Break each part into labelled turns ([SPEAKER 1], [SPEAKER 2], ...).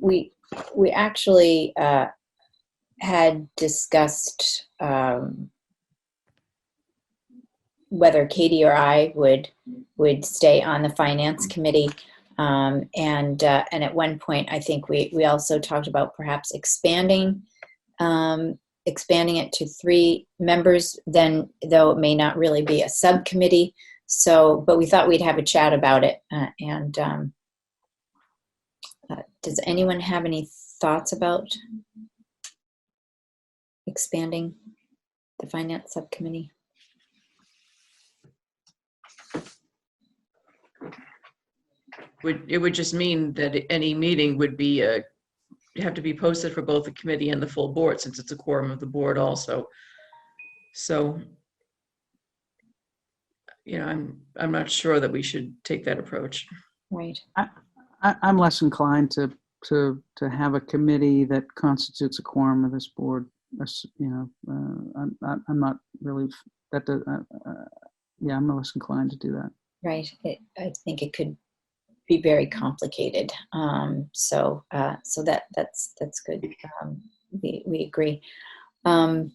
[SPEAKER 1] we we actually uh, had discussed um, whether Katie or I would would stay on the finance committee. Um, and uh, and at one point, I think we we also talked about perhaps expanding um, expanding it to three members. Then, though, it may not really be a subcommittee. So, but we thought we'd have a chat about it. Uh, and um, uh, does anyone have any thoughts about expanding the finance subcommittee?
[SPEAKER 2] Would, it would just mean that any meeting would be, uh, have to be posted for both the committee and the full board, since it's a quorum of the board also. So, you know, I'm, I'm not sure that we should take that approach.
[SPEAKER 1] Right.
[SPEAKER 3] I, I'm less inclined to, to, to have a committee that constitutes a quorum of this board. That's, You know, uh, I'm, I'm- I'm not really, that, does- uh, uh, yeah, I'm less inclined to do that.
[SPEAKER 1] Right. It, I think it could be very complicated. Um, so, uh, so that that's that's good. Um, we we agree, um,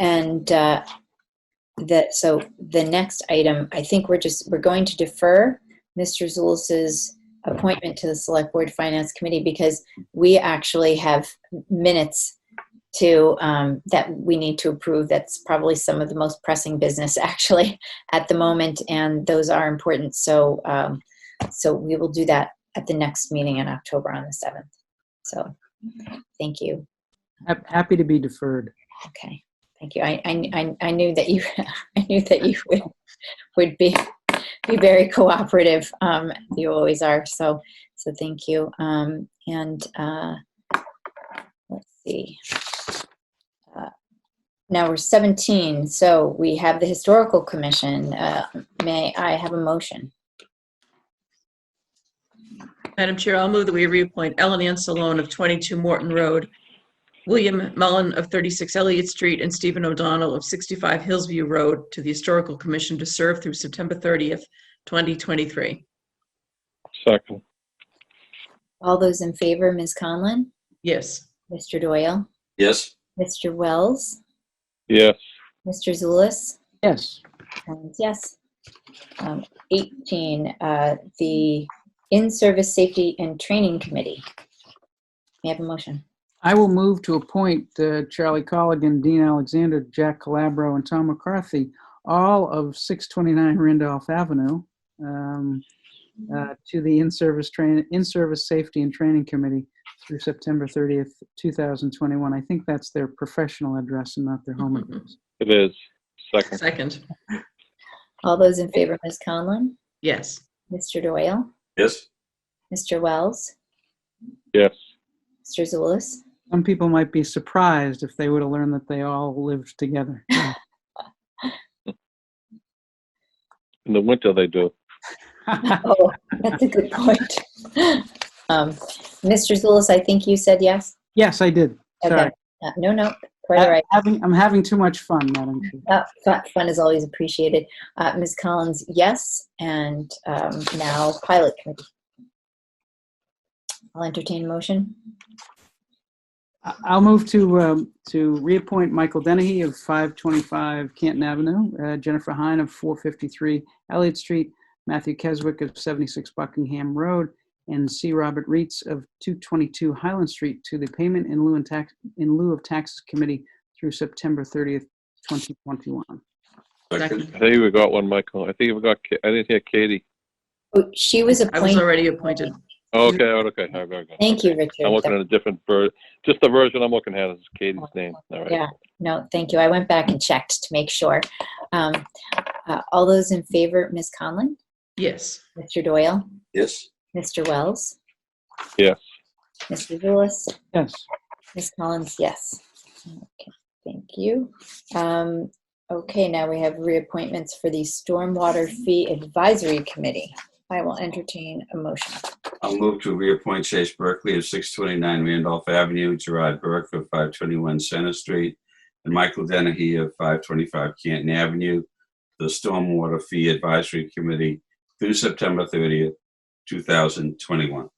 [SPEAKER 1] and uh, that so the next item. I think we're just we're going to defer Mr. Zulis's appointment to the Select Board Finance Committee because we actually have minutes to um, that we need to approve. That's probably some of the most pressing business actually at the moment, and those are important. So, um, so we will do that at the next meeting in October on the seventh. So, thank you.
[SPEAKER 3] Hap- Happy to be deferred.
[SPEAKER 1] Okay, thank you. I, I, I- I knew that you, I knew that you would, would be, be very cooperative. Um, you always are. So, so thank you. Um, and, uh, let's see. Uh, Now we're 17, so we have the Historical Commission. Uh, may I have a motion?
[SPEAKER 2] Madam Chair, I'll move that we reappoint Ellen Ann Salone of 22 Morton Road, William Mullen of 36 Elliott Street, and Stephen O'Donnell of 65 Hillsview Road to the Historical Commission to serve through September 30th, 2023.
[SPEAKER 4] Second,
[SPEAKER 1] All those in favor, Ms. Conlon,
[SPEAKER 2] Yes.
[SPEAKER 1] Mr. Doyle,
[SPEAKER 5] yes,
[SPEAKER 1] Mr. Wells,
[SPEAKER 4] yes,
[SPEAKER 1] Mr. Zulus,
[SPEAKER 3] Yes,
[SPEAKER 1] And yes. Um, 18, uh, the In-Service Safety and Training Committee. May I have a motion?
[SPEAKER 3] I will move to appoint uh, Charlie Colligan, Dean Alexander, Jack Calabro, and Tom McCarthy, all of 629 Randolph Avenue, um, uh, to the in-service train, in-service safety and training committee through September 30th, 2021. I think that's their professional address and not their home
[SPEAKER 1] Mm-hmm.
[SPEAKER 3] address.
[SPEAKER 4] it is. Second,
[SPEAKER 2] Second.
[SPEAKER 1] All those in favor, Ms. Conlon,
[SPEAKER 2] Yes.
[SPEAKER 1] Mr. Doyle,
[SPEAKER 5] yes,
[SPEAKER 1] Mr. Wells,
[SPEAKER 4] yes,
[SPEAKER 1] Mr. Zulus,
[SPEAKER 3] Some people might be surprised if they would have learned that they all lived together.
[SPEAKER 4] in the winter they do.
[SPEAKER 1] Oh, that's a good point. Um, Mr. Zulus, I think you said yes?
[SPEAKER 3] Yes, I did.
[SPEAKER 1] Okay.
[SPEAKER 3] Sorry.
[SPEAKER 1] Uh, No, no, quite all right.
[SPEAKER 3] Having- I'm having too much fun, Madam Chair.
[SPEAKER 1] Uh, fu- Fun is always appreciated. Uh, Ms. Collins, yes, and um, now Pilot Committee. I'll entertain a motion.
[SPEAKER 3] I- I'll move to, um, to reappoint Michael Dennehy of 525 Canton Avenue, uh, Jennifer Hine of 453 Elliott Street, Matthew Keswick of 76 Buckingham Road, and C. Robert Reitz of 222 Highland Street to the Payment in lieu and tax, in lieu of Taxes Committee through September 30th, 2021.
[SPEAKER 5] second,
[SPEAKER 4] I think we got one, Michael. I think we got, Ka- I didn't hear Katie.
[SPEAKER 1] Oh, She was
[SPEAKER 2] I was
[SPEAKER 1] appointed,
[SPEAKER 2] already appointed.
[SPEAKER 4] Oh, Okay, oh, okay, I got it.
[SPEAKER 1] Mm-hmm. thank you,
[SPEAKER 4] I'm looking
[SPEAKER 1] Richard.
[SPEAKER 4] at a different ver, just the version I'm looking at is Katie's name. All right.
[SPEAKER 1] Yeah, no, thank you. I went back and checked to make sure. Um, uh, All those in favor, Ms. Conlon,
[SPEAKER 2] Yes.
[SPEAKER 1] Mr. Doyle,
[SPEAKER 5] yes,
[SPEAKER 1] Mr. Wells,
[SPEAKER 4] Yes,
[SPEAKER 1] Mr. Zulus,
[SPEAKER 3] Yes.
[SPEAKER 1] Ms. Collins, yes. Okay, Thank you. Um, Okay, now we have reappointments for the Stormwater Fee Advisory Committee. I will entertain a motion.
[SPEAKER 5] I'll move to reappoint Chase Berkeley of 629 Randolph Avenue, Gerard Burke of 521 Center Street, and Michael Dennehy of 525 Canton Avenue, the Stormwater Fee Advisory Committee through September 30th, 2021.